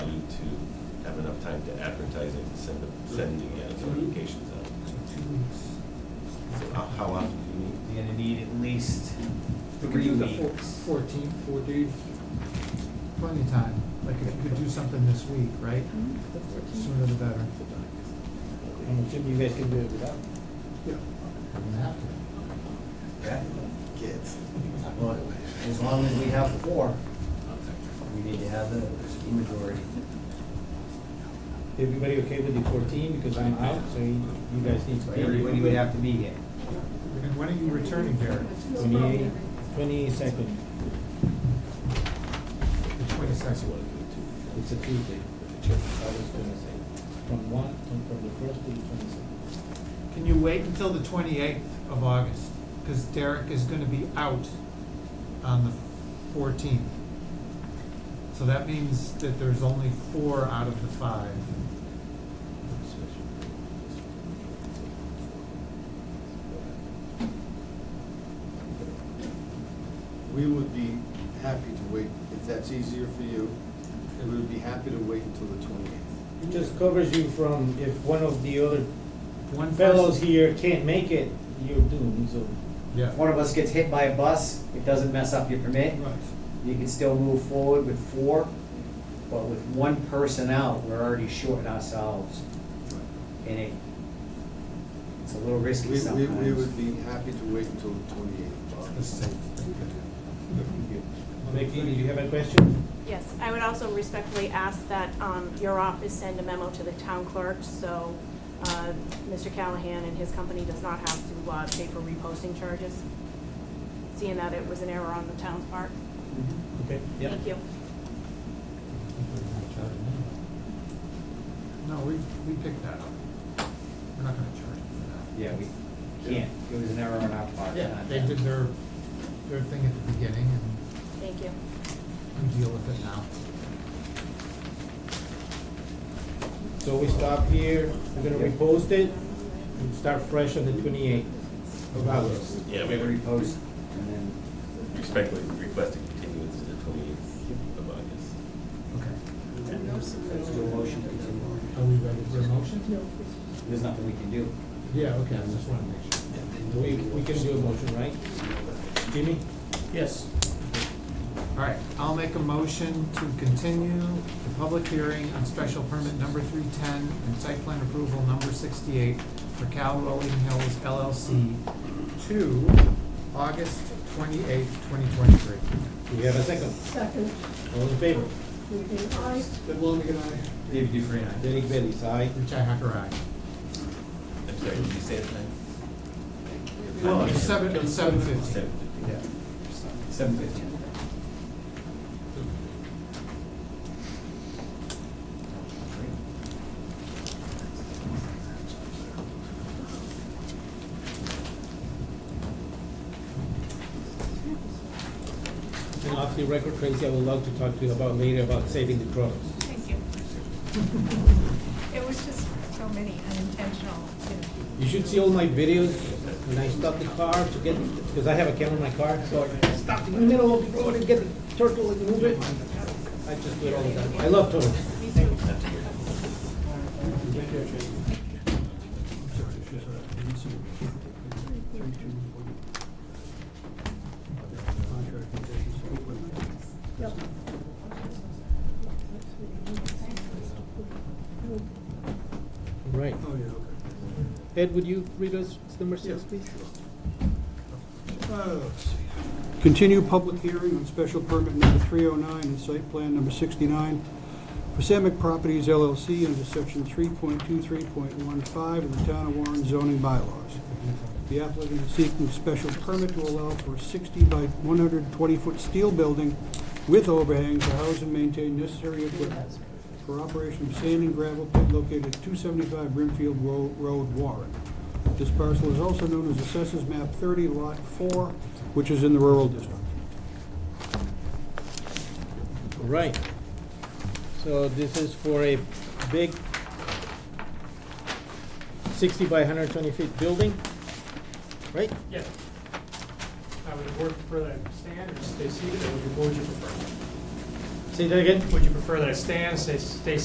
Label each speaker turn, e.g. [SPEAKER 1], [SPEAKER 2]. [SPEAKER 1] time to advertise it, send the, send the uh, notifications out. So how- How often do you meet?
[SPEAKER 2] You're gonna need at least
[SPEAKER 3] We could
[SPEAKER 2] three
[SPEAKER 4] Uh,
[SPEAKER 3] do the four-
[SPEAKER 2] weeks.
[SPEAKER 3] fourteen, four days.
[SPEAKER 4] Plenty of time, like if you could do something this week, right? Sooner the better.
[SPEAKER 5] I'm assuming you guys can do it without.
[SPEAKER 4] Yeah.
[SPEAKER 2] Yeah.
[SPEAKER 5] Kids.
[SPEAKER 2] Well, as long as we have four, we need to have the majority.
[SPEAKER 5] Everybody okay with the fourteen, because I'm out, so you you guys need to be.
[SPEAKER 2] Everybody would have to be here.
[SPEAKER 4] And when are you returning, Derek?
[SPEAKER 5] Twenty-eight, twenty-second,
[SPEAKER 4] The twenty-second.
[SPEAKER 5] it's a Tuesday, August twenty-second, from one, from from the first to the twenty-second.
[SPEAKER 4] Can you wait until the twenty-eighth of August? Because Derek is gonna be out on the fourteenth. So that means that there's only four out of the five.
[SPEAKER 6] We would be happy to wait, if that's easier for you, we would be happy to wait until the twenty-eighth.
[SPEAKER 5] It just covers you from, if one of the other
[SPEAKER 4] One
[SPEAKER 5] fellows
[SPEAKER 4] person-
[SPEAKER 5] here can't make it, you're doomed, so.
[SPEAKER 4] Yeah.
[SPEAKER 2] If one of us gets hit by a bus, it doesn't mess up your permit.
[SPEAKER 4] Right.
[SPEAKER 2] You can still move forward with four, but with one person out, we're already shorting ourselves. And it, it's a little risky
[SPEAKER 6] We, we, we would
[SPEAKER 2] sometimes.
[SPEAKER 6] be happy to wait until the
[SPEAKER 4] The
[SPEAKER 6] twenty-eighth.
[SPEAKER 4] safe.
[SPEAKER 5] Becky, did you have a question?
[SPEAKER 7] Yes, I would also respectfully ask that um, your office send a memo to the town clerk, so uh, Mr. Callahan and his company does not have to uh, pay for reposting charges, seeing that it was an error on the town's part.
[SPEAKER 5] Okay. Yeah.
[SPEAKER 7] Thank you.
[SPEAKER 4] No, we, we picked that up. We're not gonna charge them
[SPEAKER 2] Yeah, we can't, it was an error on our
[SPEAKER 4] for
[SPEAKER 2] part.
[SPEAKER 4] that. Yeah,
[SPEAKER 2] not
[SPEAKER 4] they
[SPEAKER 2] them.
[SPEAKER 4] did their, their thing at the beginning and
[SPEAKER 7] Thank you.
[SPEAKER 4] we deal with it now.
[SPEAKER 5] So we stop here, we're gonna repost it, and start fresh on the twenty-eighth of August.
[SPEAKER 1] Yeah, we
[SPEAKER 2] Every
[SPEAKER 1] would
[SPEAKER 2] post, and then,
[SPEAKER 1] expect, request a continuance to the twenty-eighth of August.
[SPEAKER 4] Okay.
[SPEAKER 2] let's do a motion to continue.
[SPEAKER 4] Are we ready for a motion?
[SPEAKER 2] There's nothing we can do.
[SPEAKER 4] Yeah, okay, I just wanna make sure.
[SPEAKER 5] We, we can do a motion, right? Jimmy? Yes.
[SPEAKER 4] All right, I'll make a motion to continue the public hearing on special permit number three ten and site plan approval number sixty-eight for Cal Rolling Hills LLC to August twenty-eighth, twenty twenty-three.
[SPEAKER 5] Do we have a second?
[SPEAKER 8] Second,
[SPEAKER 5] All in favor?
[SPEAKER 8] moving aye.
[SPEAKER 4] Good long, good night.
[SPEAKER 5] David Dufresne, aye. Derek Bellis, aye.
[SPEAKER 4] Richi Hacker, aye.
[SPEAKER 1] I'm sorry, did you say the time?
[SPEAKER 4] Well, it's seven, it's seven fifty.
[SPEAKER 1] Seven fifteen.
[SPEAKER 5] Yeah.
[SPEAKER 2] Seven fifteen.
[SPEAKER 5] And off the record, Tracy, I would love to talk to you about later about saving the crops.
[SPEAKER 8] Thank you. It was just so many unintentional, you know.
[SPEAKER 5] You should see all my videos when I stop the car to get, because I have a camera in my car, so I stop in the middle of the road and get the turtle and move it. I just do it all the time. I love turtles. Right.
[SPEAKER 6] Oh, yeah, okay.
[SPEAKER 5] Ed, would you read us number six, please?
[SPEAKER 9] Continue public hearing on special permit number 309 and site plan number 69 for Samick Properties LLC under section 3.23.15 of the Town of Warren zoning bylaws. The applicant is seeking special permit to allow for a 60 by 120-foot steel building with overhang to house and maintain necessary equipment for operation of sand and gravel pit located at 275 Brimfield Ro- Road, Warren. This parcel is also known as Assessors Map 30, Lot 4, which is in the rural district.
[SPEAKER 5] Right. So this is for a big sixty by hundred twenty feet building, right?
[SPEAKER 10] Yeah. I would work for that stand or stay seated, or would you, what would you prefer?
[SPEAKER 5] Say that again?
[SPEAKER 10] Would you prefer that I stand, stay, stay